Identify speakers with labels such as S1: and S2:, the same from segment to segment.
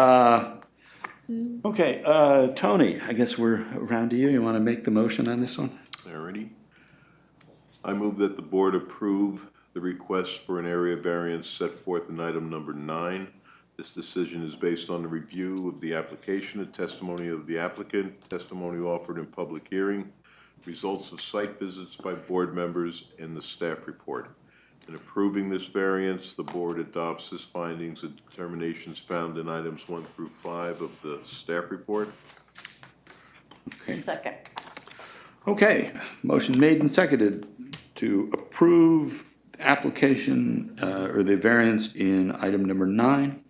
S1: Uh, Okay, uh, Tony, I guess we're around to you. You want to make the motion on this one?
S2: Alrighty. I move that the board approve the request for an area variance set forth in item number nine. This decision is based on the review of the application and testimony of the applicant, testimony offered in public hearing, results of site visits by board members, and the staff report. In approving this variance, the board adopts its findings and determinations found in items one through five of the staff report.
S1: Okay.
S3: Second.
S1: Okay, motion made and seconded to approve application uh, or the variance in item number nine.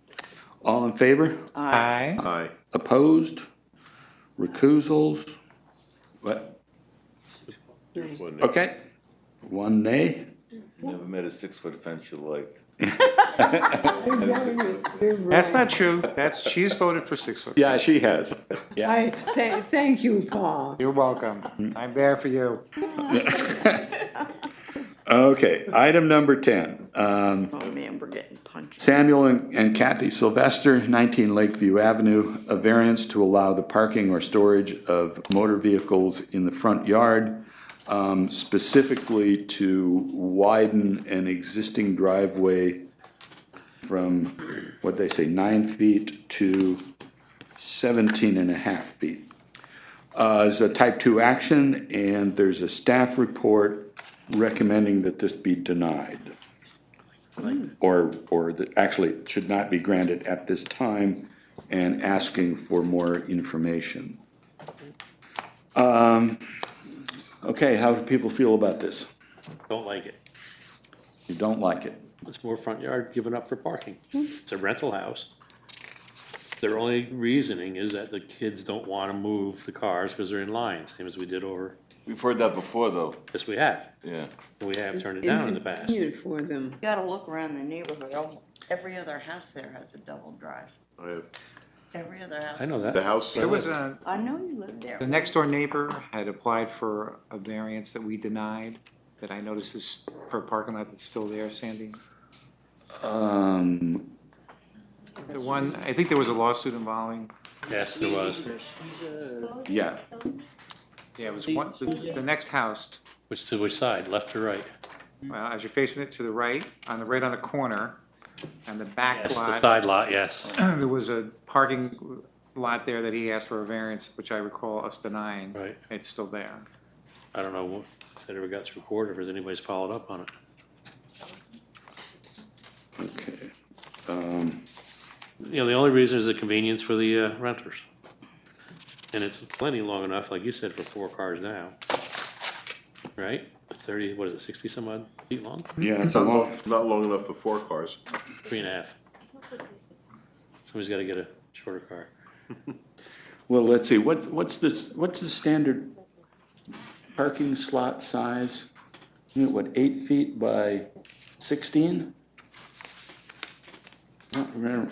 S1: All in favor?
S4: Aye.
S2: Aye.
S1: Opposed? Recusals? What?
S2: One nay.
S1: Okay, one nay.
S5: Never met a six-foot fence you liked.
S4: That's not true. That's, she's voted for six foot.
S1: Yeah, she has.
S6: I, thank, thank you, Paul.
S4: You're welcome. I'm there for you.
S1: Okay, item number 10. Um,
S3: Oh, man, we're getting punched.
S1: Samuel and and Kathy Sylvester, 19 Lakeview Avenue, a variance to allow the parking or storage of motor vehicles in the front yard, um, specifically to widen an existing driveway from, what'd they say, nine feet to 17 and a half feet. Uh, It's a type 2 action, and there's a staff report recommending that this be denied or, or that actually should not be granted at this time, and asking for more information. Um, Okay, how do people feel about this?
S7: Don't like it.
S1: You don't like it?
S7: It's more front yard given up for parking. It's a rental house. Their only reasoning is that the kids don't want to move the cars because they're in line, same as we did over,
S5: We've heard that before, though,
S7: yes, we have.
S5: yeah.
S7: We have turned it down in the past.
S6: Inconvenient for them.
S3: You gotta look around the neighborhood. Al- Every other house there has a double drive.
S2: I have
S3: Every other house.
S7: I know
S2: The
S7: that.
S2: house.
S4: There was a,
S3: I know you live there.
S4: the next door neighbor had applied for a variance that we denied, that I noticed is for a parking lot that's still there, Sandy.
S1: Um,
S4: The one, I think there was a lawsuit involving,
S2: uh,
S7: Yes, there was,
S1: Yeah,
S4: yeah, it was one, the, the next house,
S7: which, to which side, left or right? Mm-hmm.
S4: well, as you're facing it to the right, on the, right on the corner, on the back
S7: Yes, the
S4: lot.
S7: side lot, yes,
S4: there was a parking lot there that he asked for a variance, which I recall us denying.
S7: Right.
S4: It's still there.
S7: I don't know if that ever got through court, or if anybody's followed up on it.
S1: okay.
S7: You know, the only reason is the convenience for the uh, renters. And it's plenty long enough, like you said, for four cars now. Right? Thirty, what is it, sixty some odd feet long?
S1: Yeah, it's a
S2: Not long,
S1: long,
S2: not long enough for four cars.
S7: Three and a half. Somebody's gotta get a shorter car.
S1: well, let's see, what, what's this, what's the standard parking slot size? You know, What, eight feet by sixteen? Not remember.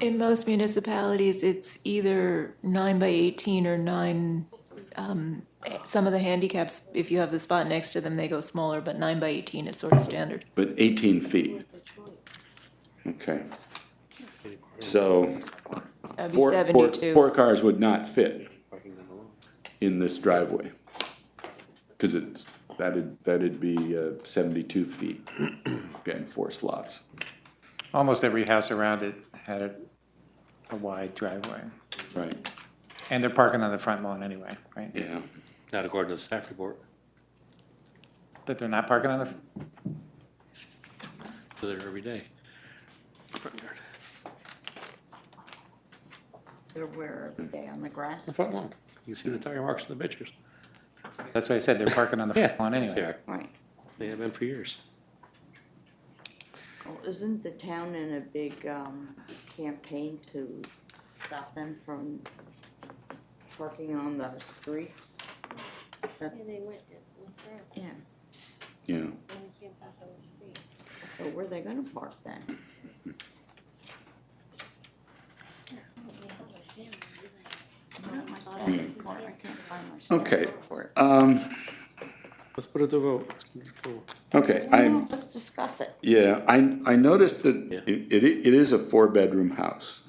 S8: In most municipalities, it's either nine by eighteen or nine, um, some of the handicaps, if you have the spot next to them, they go smaller, but nine by eighteen is sort of standard.
S1: But 18 feet. Okay. So
S8: That'd be
S1: four, four, four
S8: seventy-two.
S1: cars would not fit
S7: Parking them alone.
S1: in this driveway. Because it's, that'd, that'd be uh, 72 feet, getting four slots.
S4: Almost every house around it had a, a wide driveway.
S1: Right,
S4: And they're parking on the front lawn anyway, right?
S1: yeah.
S7: Not according to the staff report,
S4: That they're not parking on the,
S7: they're there every day.
S3: They're where, every day on the grass?
S7: The front lawn, you can see the tire marks in the pictures.
S4: that's what I said, they're parking on the
S7: Yeah.
S4: front lawn
S7: they
S4: anyway.
S7: are.
S3: Right.
S7: They have been for years.
S3: Well, isn't the town in a big, um, campaign to stop them from parking on the street?
S9: Yeah, they went with her
S3: Yeah,
S1: Yeah,
S9: and they came back on the street.
S3: so where are they gonna park then?
S9: They have a family, didn't they?
S3: Not my staff report. I can't find my staff
S1: okay.
S3: report.
S1: Um,
S7: Let's put it to vote. Let's keep it cool.
S1: okay,
S3: No,
S1: I,
S3: Let's discuss it.
S1: yeah, I, I noticed that
S7: Yeah.
S1: it, it it is a four-bedroom house.